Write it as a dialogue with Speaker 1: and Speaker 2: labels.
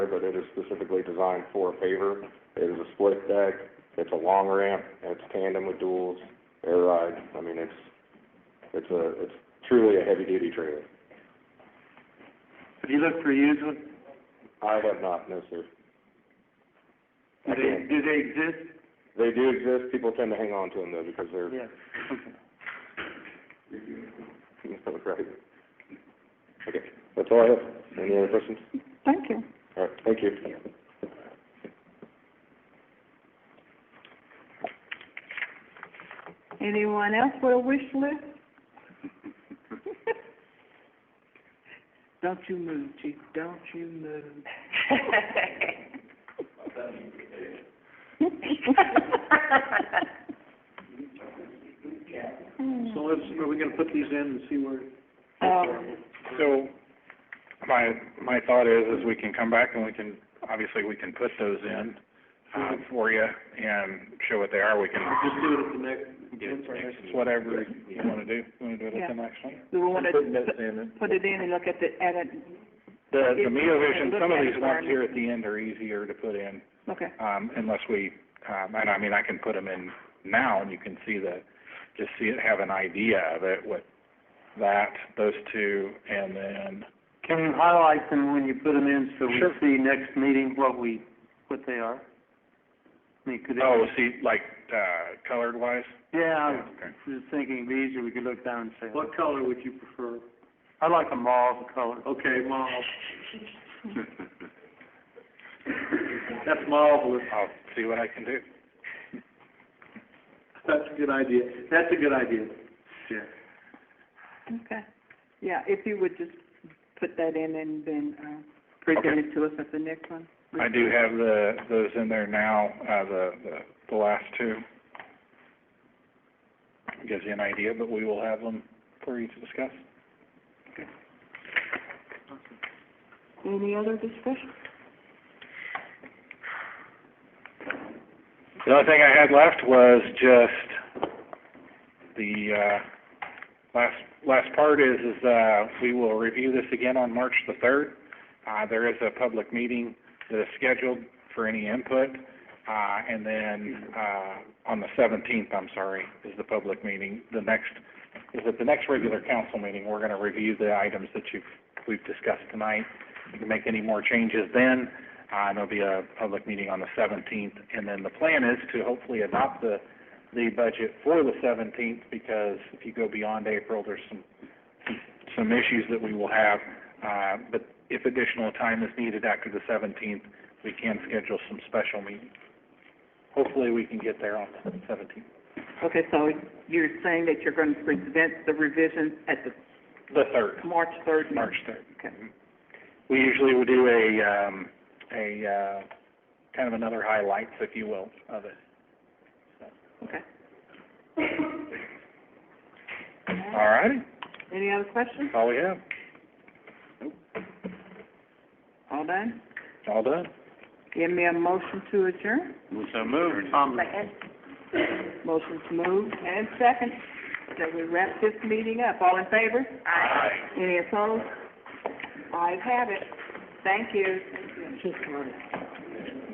Speaker 1: but it is specifically designed for a paver. It is a split deck, it's a long ramp, and it's tandem with duals, air ride. I mean, it's, it's a, it's truly a heavy-duty trailer.
Speaker 2: Have you looked for used ones?
Speaker 1: I have not, no, sir.
Speaker 2: Do they, do they exist?
Speaker 1: They do exist, people tend to hang on to them though, because they're,
Speaker 2: Yeah. Okay.
Speaker 1: right. Okay, that's all I have. Any other questions?
Speaker 3: Thank you.
Speaker 1: All right, thank you.
Speaker 3: Anyone else with a wish list?
Speaker 2: Don't you move, chief, don't you move. So let's, are we gonna put these in and see where?
Speaker 3: Um,
Speaker 4: So, my, my thought is, is we can come back and we can, obviously, we can put those in, uh, for you and show what they are, we can.
Speaker 2: Just do it at the next,
Speaker 4: Yeah,
Speaker 2: that's our next
Speaker 4: it's Whatever you wanna do, you wanna do it at the next one?
Speaker 3: Do we want to
Speaker 4: in.
Speaker 3: put it in and look at the, at it,
Speaker 4: The, the Mio
Speaker 3: Look
Speaker 4: Vision, some of
Speaker 3: at
Speaker 4: these
Speaker 3: it
Speaker 4: ones
Speaker 3: first.
Speaker 4: here at the end are easier to put in,
Speaker 3: okay,
Speaker 4: um, unless we, um, and I mean, I can put them in now, and you can see the, just see it, have an idea of it, what, that, those two, and then,
Speaker 2: Can you highlight them when you put them in so we
Speaker 4: Sure.
Speaker 2: see next meeting what we, what they are? I mean, could it?
Speaker 4: oh, see, like, uh, colored wise?
Speaker 2: Yeah, I was
Speaker 4: Okay.
Speaker 2: just thinking it'd be easier, we could look down and say. What color would you prefer? I like a mauve color. Okay, mauve. That's marvelous.
Speaker 4: I'll see what I can do.
Speaker 2: That's a good idea. That's a good idea. Yeah.
Speaker 3: okay. Yeah, if you would just put that in and then, uh, present it to us at the next one.
Speaker 4: I do have the, those in there now, uh, the, the, the last two. Gives you an idea, but we will have them for you to discuss.
Speaker 3: Any other discussion?
Speaker 4: The only thing I had left was just the, uh, last, last part is, is, uh, we will review this again on March the third. Uh, there is a public meeting that is scheduled for any input, uh, and then, uh, on the seventeenth, I'm sorry, is the public meeting. The next, is at the next regular council meeting, we're gonna review the items that you've, we've discussed tonight. You can make any more changes then, uh, and there'll be a public meeting on the seventeenth, and then the plan is to hopefully adopt the, the budget for the seventeenth, because if you go beyond April, there's some, some issues that we will have. Uh, but if additional time is needed after the seventeenth, we can schedule some special meetings. Hopefully, we can get there on the seventeenth.
Speaker 3: Okay, so you're saying that you're going to present the revisions at the
Speaker 4: The third,
Speaker 3: March third meeting?
Speaker 4: March third.
Speaker 3: Okay.
Speaker 4: We usually would do a, um, a, uh, kind of another highlights, if you will, of it.
Speaker 3: Okay.
Speaker 4: All righty,
Speaker 3: Any other questions?
Speaker 4: all we have,
Speaker 3: All done?
Speaker 4: all done.
Speaker 3: Give me a motion to adjourn.
Speaker 2: So moved. Um,
Speaker 3: Motion's moved and second. So we wrap this meeting up. All in favor?
Speaker 4: Aye.
Speaker 3: Any opposed? Ayes have it. Thank you. Just a minute.